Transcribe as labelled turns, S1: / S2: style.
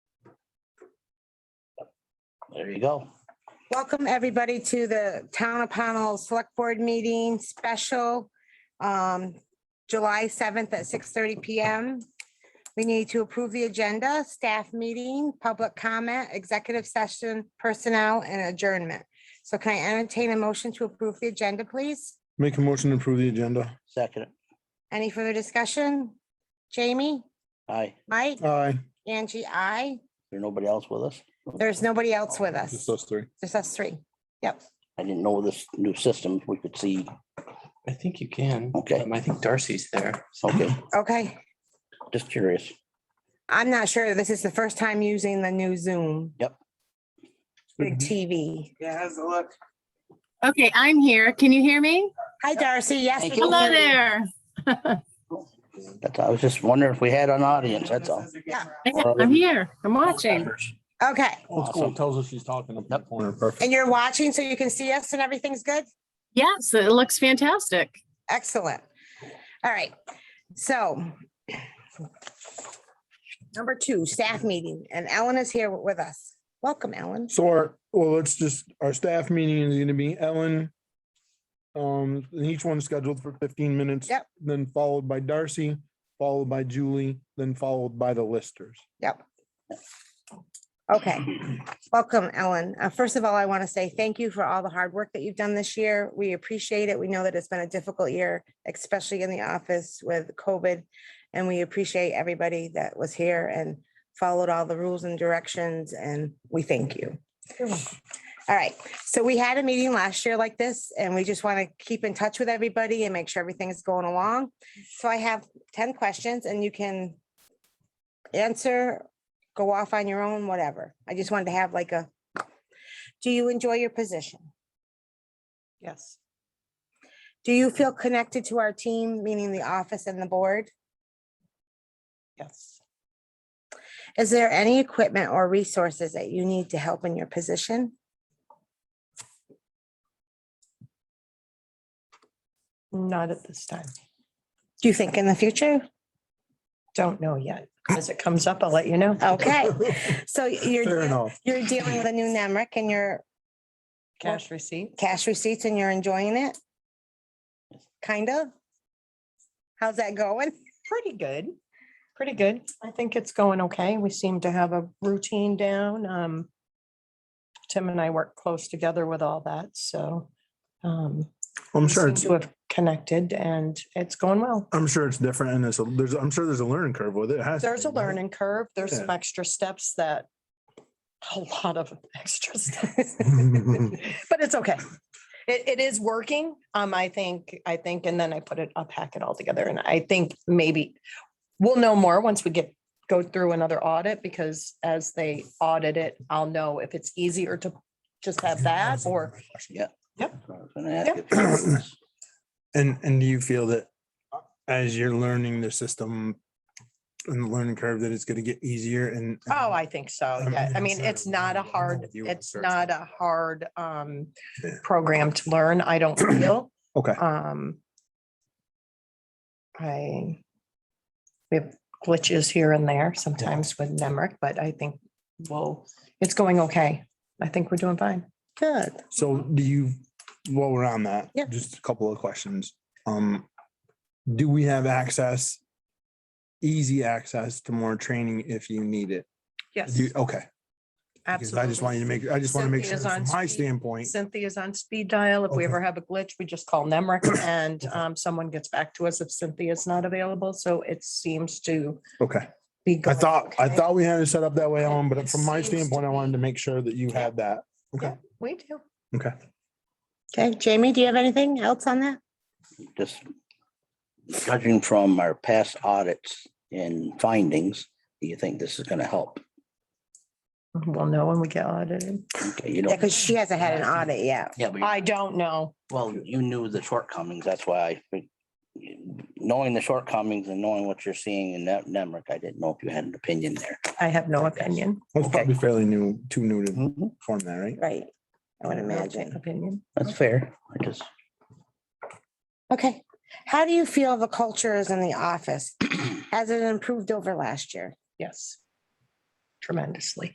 S1: There you go.
S2: Welcome, everybody, to the Town of Pownell Select Board Meeting Special, um, July 7th at 6:30 PM. We need to approve the agenda, staff meeting, public comment, executive session, personnel, and adjournment. So can I entertain a motion to approve the agenda, please?
S3: Make a motion to approve the agenda.
S1: Second,
S2: Any further discussion? Jamie,
S1: aye.
S2: Mike,
S3: Aye.
S2: Angie, I.
S1: There's nobody else with us?
S2: There's nobody else with us.
S3: Just us three.
S2: Just us three. Yep.
S1: I didn't know this new system. We could see.
S4: I think you can.
S1: Okay.
S4: Um, I think Darcy's there.
S1: Okay,
S2: Okay.
S1: just curious.
S2: I'm not sure. This is the first time using the new Zoom.
S1: Yep.
S2: Big TV.
S5: Yeah, how's it look?
S6: Okay, I'm here. Can you hear me?
S2: Hi, Darcy. Yes.
S1: Thank
S2: we
S1: you.
S2: can
S6: Hello
S2: hear you.
S6: there.
S1: That's, I was just wondering if we had an audience, that's all.
S5: This is a good round.
S6: I'm here. I'm watching.
S2: Okay.
S1: Awesome.
S3: Tells us she's talking up
S1: in the
S3: corner. Perfect.
S2: And you're watching so you can see us and everything's good?
S6: Yes, it looks fantastic.
S2: Excellent. All right. So number two, staff meeting, and Ellen is here with us. Welcome, Ellen.
S3: So our, well, let's just, our staff meeting is gonna be Ellen. Um, and each one's scheduled for fifteen minutes.
S2: Yep.
S3: Then followed by Darcy, followed by Julie, then followed by the listers.
S2: Okay, welcome, Ellen. Uh, First of all, I want to say thank you for all the hard work that you've done this year. We appreciate it. We know that it's been a difficult year, especially in the office with COVID. And we appreciate everybody that was here and followed all the rules and directions, and we thank you. All right, so we had a meeting last year like this, and we just want to keep in touch with everybody and make sure everything is going along. So I have 10 questions, and you can answer go off on your own, whatever. I just wanted to have like a, do you enjoy your position?
S5: Yes,
S2: Do you feel connected to our team, meaning the office and the board?
S5: yes,
S2: Is there any equipment or resources that you need to help in your position?
S7: Not at this time.
S2: Do you think in the future?
S7: Don't know yet. As it comes up, I'll let you know.
S2: Okay, so you're,
S3: Fair
S2: de-
S3: enough.
S2: you're dealing with a new NEMRIC and your
S7: Cash receipt.
S2: cash receipts and you're enjoying it? Kind of? How's that going?
S7: Pretty good. Pretty good. I think it's going okay. We seem to have a routine down. Um, Tim and I work close together with all that, so. um,
S3: I'm
S7: we
S3: sure
S7: seem
S3: it's,
S7: To have connected and it's going well.
S3: I'm sure it's different and it's, a- there's, I'm sure there's a learning curve with it. It has to
S7: There's
S3: be,
S7: a
S3: right?
S7: learning curve. There's
S3: Yeah.
S7: some extra steps that, a lot of extra steps. But it's okay. It, it is working. Um, I think, I think, and then I put it, I'll pack it all together and I think maybe we'll know more once we get, go through another audit because as they audit it, I'll know if it's easier to just have that or
S1: I was gonna ask you.
S3: And, and do you feel that as you're learning the system and the learning curve, that it's gonna get easier and?
S7: Oh, I think so.
S3: I'm
S7: Yeah. I
S3: gonna
S7: mean,
S3: say
S7: it's not a
S3: I'm
S7: hard,
S3: with you on
S7: it's
S3: search.
S7: not a hard um
S3: Yeah.
S7: program to learn, I don't feel.
S3: Okay.
S7: Um. I. We have glitches here and there sometimes with Nemrick, but I think, well, it's going okay. I think we're doing fine.
S2: Good.
S3: So
S7: Mm-hmm.
S3: do you, while we're on that?
S2: Yeah.
S3: Just a couple of questions. Um, do we have access? Easy access to more training if you need it? Do you- Okay. because I just want you to make, I just want to make sure
S7: Cynthia's on
S3: from my
S7: speed.
S3: standpoint.
S7: Cynthia's on speed dial. If we
S3: Okay.
S7: ever have a glitch, we just call Nemrick and
S3: Okay.
S7: um someone gets back to us if Cynthia's not available. So it seems to
S3: Okay.
S7: be.
S3: I
S7: going
S3: thought, I
S7: okay.
S3: thought we had it set up that way, Ellen, but from my
S7: It seems to
S3: standpoint, I wanted
S7: be.
S3: to make sure that you had that. Okay.
S7: We do.
S3: Okay.
S2: Okay, Jamie, do you have anything else on that?
S1: Just judging from our past audits and findings, do you think this is gonna help?
S7: We'll know when we get audited.
S1: Okay, you
S2: Yeah,
S1: don't.
S2: because she hasn't had an audit yet.
S1: Yeah, but,
S7: I don't know.
S1: well, you knew the shortcomings, that's why I, knowing the shortcomings and knowing what you're seeing in that Nemrick, I didn't know if you had an opinion there.
S7: I have no opinion.
S3: That's
S1: Okay.
S3: probably fairly new, too new
S7: Mm-hmm.
S3: to form that, right?
S2: Right, I would imagine.
S7: Opinion.
S1: That's fair. I just,
S2: Okay, how do you feel the culture is in the office? Has it improved over last year?
S7: Yes. Tremendously.